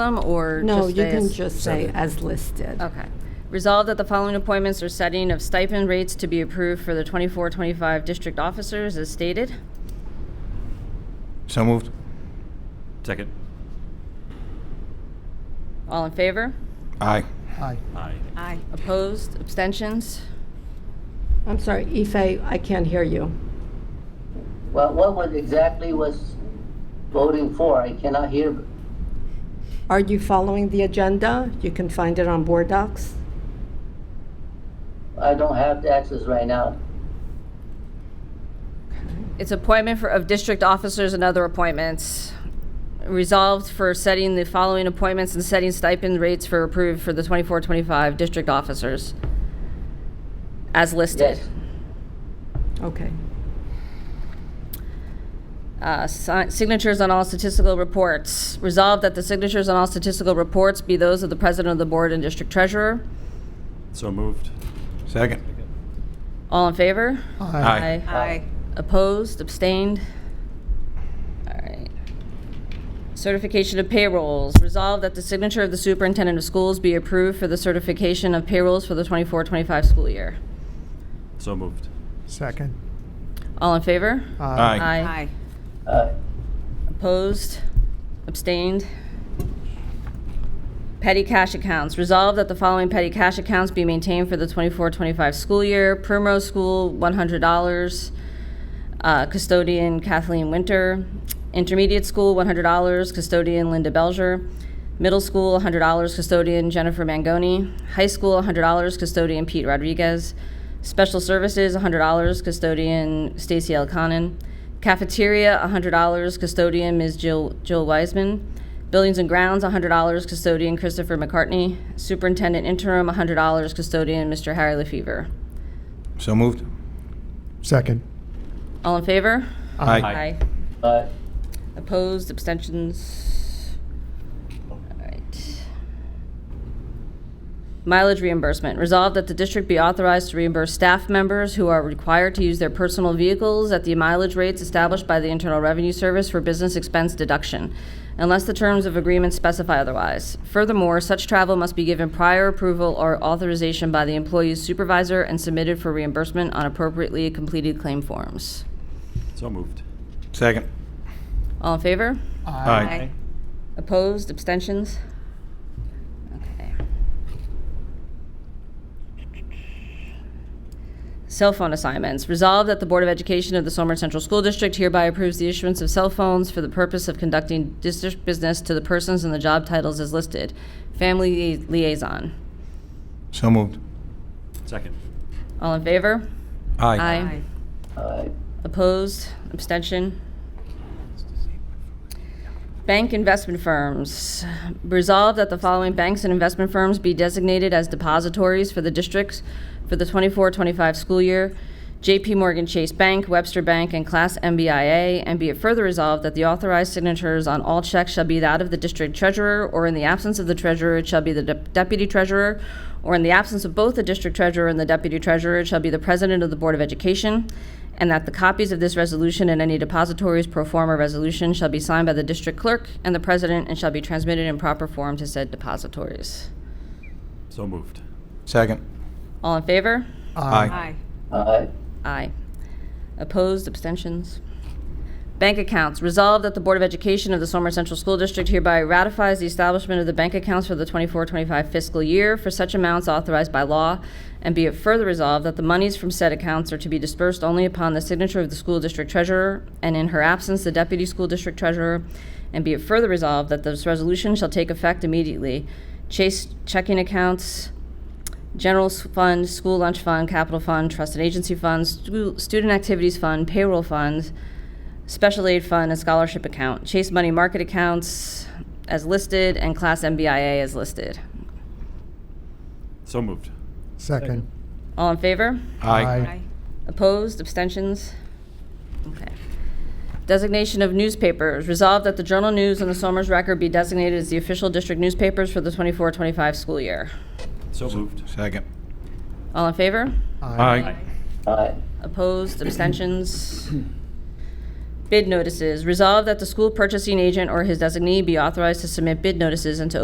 them, or No, just you they can as- just say as listed. Okay. Resolved that the following appointments or setting of stipend rates to be approved for the 24-25 district officers as stated. So moved. Second. All in favor? Aye. Aye. Aye. Aye. Opposed? Abstentions? I'm sorry, Ife, I can't hear you. Well, what was exactly was voting for? I cannot hear. Are you following the agenda? You can find it on Board Docs. I don't have the access right now. It's appointment for, of district officers and other appointments. Resolved for setting the following appointments and setting stipend rates for approved for the 24-25 district officers as listed. Yes. Okay. Uh, si- Signatures on all statistical reports. Resolved that the signatures on all statistical reports be those of the president of the board and district treasurer. So moved. Second. All in favor? Aye. Aye. Opposed, abstained? All right. Certification of payrolls. Resolved that the signature of the superintendent of schools be approved for the certification of payrolls for the 24-25 school year. So moved. Second. All in favor? Aye. Aye. Aye. Opposed? Abstained? Petty cash accounts. Resolved that the following petty cash accounts be maintained for the 24-25 school year. Primrose School, $100. uh, Custodian Kathleen Winter. Intermediate School, $100. Custodian Linda Belger. Middle School, $100. Custodian Jennifer Mangoni. High School, $100. Custodian Pete Rodriguez. Special Services, $100. Custodian Stacy L. Conan. Cafeteria, $100. Custodian Ms. Jill Jill Wiseman. Buildings and Grounds, $100. Custodian Christopher McCartney. Superintendent Interim, $100. Custodian Mr. Harry LaFever. So moved. Second. All in favor? Aye. Aye. Aye. Opposed, abstentions? All right. Mileage reimbursement. Resolved that the district be authorized to reimburse staff members who are required to use their personal vehicles at the mileage rates established by the Internal Revenue Service for business expense deduction, unless the terms of agreement specify otherwise. Furthermore, such travel must be given prior approval or authorization by the employee's supervisor and submitted for reimbursement on appropriately completed claim forms. So moved. Second. All in favor? Aye. Opposed, abstentions? Okay. Cell phone assignments. Resolved that the Board of Education of the Somers Central School District hereby approves the issuance of cell phones for the purpose of conducting district business to the persons and the job titles as listed. Family liaison. So moved. Second. All in favor? Aye. Aye. Opposed? Abstention? Bank investment firms. Resolved that the following banks and investment firms be designated as depositories for the districts for the 24-25 school year. JP Morgan Chase Bank, Webster Bank, and Class MBIA, and be it further resolved that the authorized signatures on all checks shall be that of the district treasurer, or in the absence of the treasurer, it shall be the dep- deputy treasurer, or in the absence of both the district treasurer and the deputy treasurer, it shall be the president of the Board of Education, and that the copies of this resolution and any depositories pro forma resolution shall be signed by the district clerk and the president and shall be transmitted in proper form to said depositories. So moved. Second. All in favor? Aye. Aye. Aye. Opposed, abstentions? Bank accounts. Resolved that the Board of Education of the Somers Central School District hereby ratifies the establishment of the bank accounts for the 24-25 fiscal year for such amounts authorized by law, and be it further resolved that the monies from said accounts are to be dispersed only upon the signature of the school district treasurer, and in her absence, the deputy school district treasurer, and be it further resolved that this resolution shall take effect immediately. Chase checking accounts, General s- Fund, School Lunch Fund, Capital Fund, Trust and Agency Funds, stu- Student Activities Fund, Payroll Funds, Special Aid Fund, and Scholarship Account, Chase Money Market Accounts as listed, and Class MBIA as listed. So moved. Second. All in favor? Aye. Opposed, abstentions? Okay. Designation of newspapers. Resolved that the Journal News and the Somers Record be designated as the official district newspapers for the 24-25 school year. So moved. Second. All in favor? Aye. Aye. Opposed, abstentions? Bid notices. Resolved that the school purchasing agent or his designee be authorized to submit bid notices and to